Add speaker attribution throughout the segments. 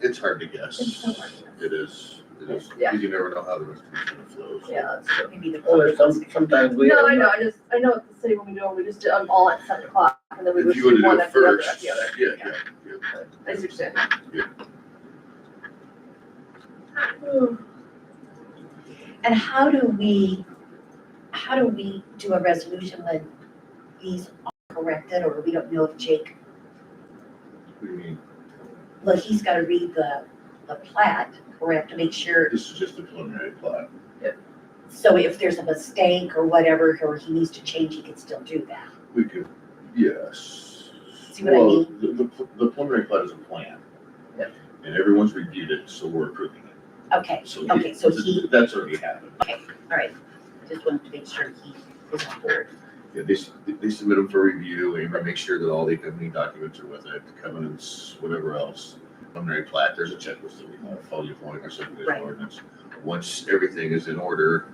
Speaker 1: it's hard to
Speaker 2: It's
Speaker 1: guess.
Speaker 2: so hard to guess.
Speaker 1: It is, it is,
Speaker 2: Yeah.
Speaker 1: because you never know how the rest of it's gonna flow. so.
Speaker 2: Yeah, that's true. We need to.
Speaker 3: Well, there's some, sometimes we.
Speaker 2: No,
Speaker 3: have
Speaker 2: I know,
Speaker 3: not-
Speaker 2: I just, I know at the city when we do them, we just did them all at seven o'clock and then we
Speaker 1: If
Speaker 2: would
Speaker 1: you
Speaker 2: do
Speaker 1: would have
Speaker 2: one
Speaker 1: did it
Speaker 2: after the other
Speaker 1: first,
Speaker 2: after the
Speaker 1: yeah,
Speaker 2: other.
Speaker 1: yeah, yeah.
Speaker 2: I just understand.
Speaker 1: Yeah.
Speaker 4: And how do we, how do we do a resolution when these are corrected or we don't know if Jake,
Speaker 1: What do you mean?
Speaker 4: well, he's gotta read the, the plat, correct, to make sure.
Speaker 1: This is just a preliminary plot.
Speaker 4: So if there's a mistake or whatever, or he needs to change, he can still do that.
Speaker 1: We could, yes.
Speaker 4: See what I
Speaker 1: Well,
Speaker 4: mean?
Speaker 1: The, the pl- the preliminary plot is a plan.
Speaker 2: Yep.
Speaker 1: And everyone's reviewed it, so we're approving it.
Speaker 4: Okay,
Speaker 1: So he-
Speaker 4: Okay, so he-
Speaker 1: That's already happened.
Speaker 4: all right. Just wanted to make sure he is on board.
Speaker 1: Yeah, they, s- they submit them for review, Amber makes sure that all the accompanying documents are with it, covenants, whatever else. Preliminary plat, there's a checklist that we have, follow your point or subdivision
Speaker 4: Right.
Speaker 1: ordinance. Once everything is in order,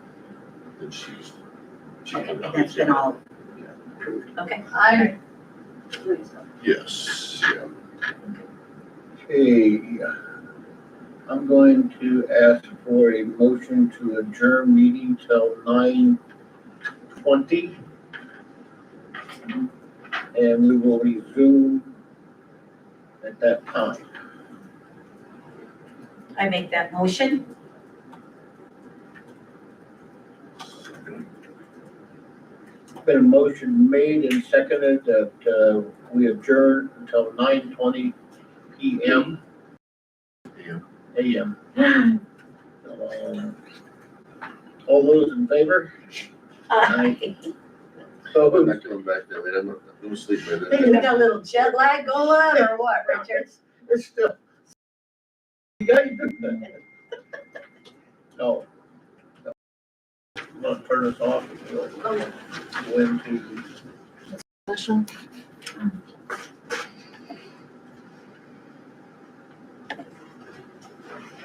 Speaker 1: then she's. she
Speaker 4: Okay,
Speaker 1: can-
Speaker 4: that's been all approved. Okay,
Speaker 2: I. Please.
Speaker 1: Yes, yeah.
Speaker 3: Okay, uh, I'm going to ask for a motion to adjourn meeting till nine twenty. And we will resume at that time.
Speaker 4: I make that motion.
Speaker 3: Been a motion made and seconded that uh, we adjourn until nine twenty P M,
Speaker 1: Yeah.
Speaker 3: A M. Um, All those in favor? Aye.
Speaker 1: I'm
Speaker 3: So,
Speaker 1: not coming back that late, I'm, gonna- I'm gonna sleep by
Speaker 4: Hey,
Speaker 1: then.
Speaker 4: we got a little jet lag going on or what, Richard?
Speaker 3: it's still. You got your good thing. No. No. Want to turn us off?
Speaker 2: Okay.
Speaker 3: When to.